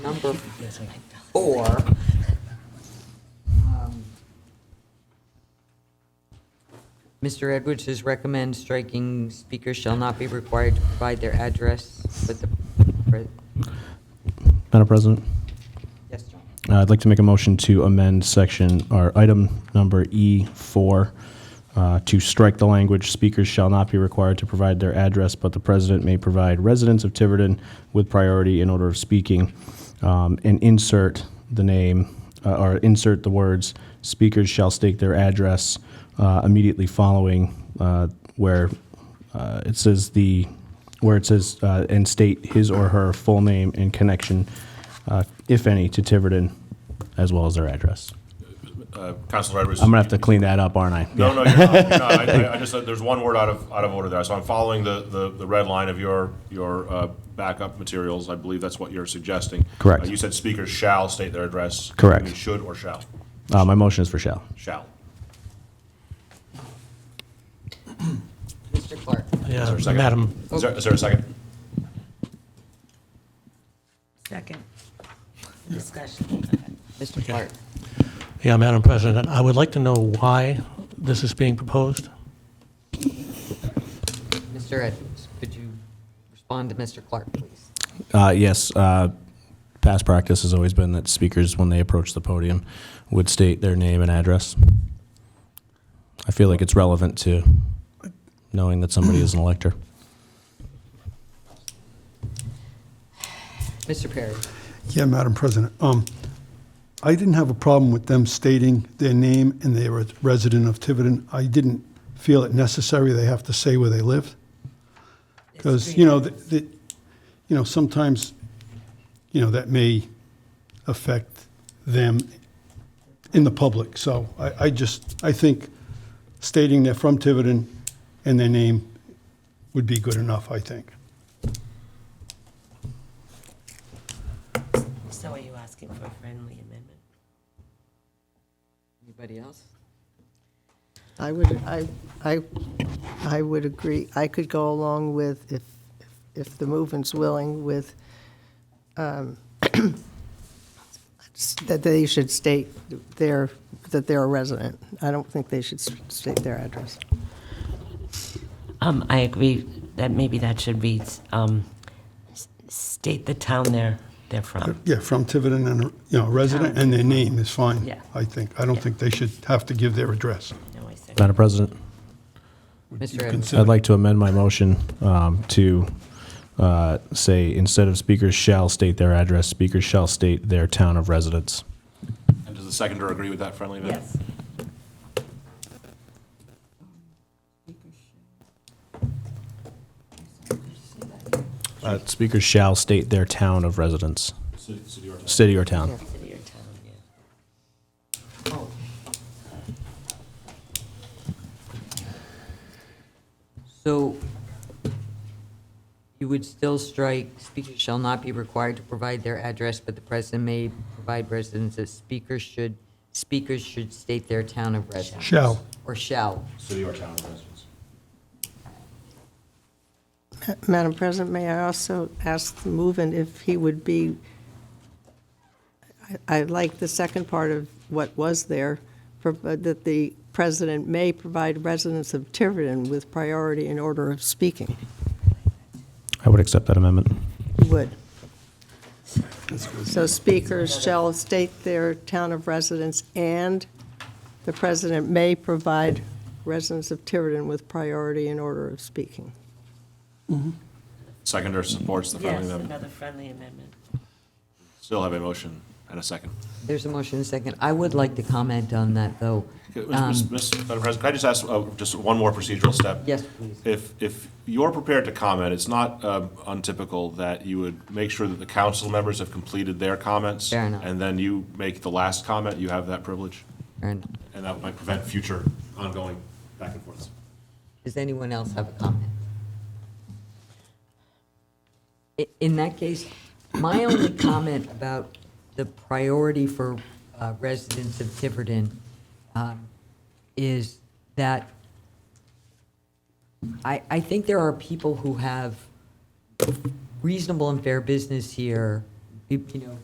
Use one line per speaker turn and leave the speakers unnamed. number four. um, Mr. Edwards has recommended striking speakers shall not be required to provide their address with the, pre-
Madam President,
yes, John.
uh, I'd like to make a motion to amend section, or item number E4, uh, to strike the language, "Speakers shall not be required to provide their address, but the president may provide residents of Tiverton with priority in order of speaking," um, and insert the name, uh, or insert the words, "Speakers shall state their address," uh, immediately following uh, where uh, it says the, where it says, uh, and state his or her full name and connection, uh, if any, to Tiverton, as well as their address.
Counselor Edwards.
I'm gonna have to clean that up, aren't I?
No, no, you're not, you're not. I, I- I just, there's one word out of, out of order there, so I'm following the, the, the red line of your, your uh, backup materials, I believe that's what you're suggesting.
Correct.
Uh, You said speakers shall state their address.
Correct.
You mean should or shall?
Uh, my motion is for shall.
Shall.
Mr. Clark.
Is there
Yeah,
a second?
Madam,
Is there, is there a second?
Second. Discussion.
Mr. Clark.
yeah, Madam President, I would like to know why this is being proposed.
Mr. Edwards, could you respond to Mr. Clark, please?
Uh, yes, uh, past practice has always been that speakers, when they approach the podium, would state their name and address. I feel like it's relevant to knowing that somebody is an elector.
Mr. Perry.
Yeah, Madam President. Um, I didn't have a problem with them stating their name and they were a resident of Tiverton. I didn't feel it necessary they have to say where they lived. Because, you know, th- th- you know, sometimes, you know, that may affect them in the public. So I, I just, I think stating they're from Tiverton and their name would be good enough, I think.
So are you asking for a friendly amendment?
Anybody else?
I would, I, I, I would agree. I could go along with, if, if the movement's willing, with, um, that they should state their, that they're a resident. I don't think they should s- state their address.
Um, I agree that maybe that should read, um, s- state the town they're, they're from.
Yeah, from Tiverton and, you know, resident, and their name is fine.
Yeah.
I think, I don't think they should have to give their address.
No, I said,
Madam President,
Mr. Edwards.
I'd like to amend my motion um, to uh, say, instead of speakers shall state their address, speakers shall state their town of residence.
And does the seconder agree with that friendly amendment?
yes.
Uh, Speakers shall state their town of residence,
City- city or town?
city or town.
City or town, yeah.
So you would still strike, speakers shall not be required to provide their address, but the president may provide residents of speakers should, speakers should state their town of residence.
Shall.
Or shall.
City or town of residence.
Madam President, may I also ask the move-in if he would be, I I like the second part of what was there, pro- that the president may provide residents of Tiverton with priority in order of speaking.
I would accept that amendment.
Would. So speakers shall state their town of residence, and the president may provide residents of Tiverton with priority in order of speaking.
Seconder supports the friendly
Yes,
amendment.
another friendly amendment.
Still have a motion and a second.
There's a motion and a second. I would like to comment on that, though. Um,
Okay, Ms. Ms. Madam President, can I just ask uh, just one more procedural step?
Yes, please.
If, if you're prepared to comment, it's not um, untypical that you would make sure that the council members have completed their comments.
Fair enough.
And then you make the last comment, you have that privilege,
And
and that might prevent future ongoing back and forths.
Does anyone else have a comment? I- In that case, my only comment about the priority for uh, residents of Tiverton um, is that I, I think there are people who have reasonable and fair business here, you you know,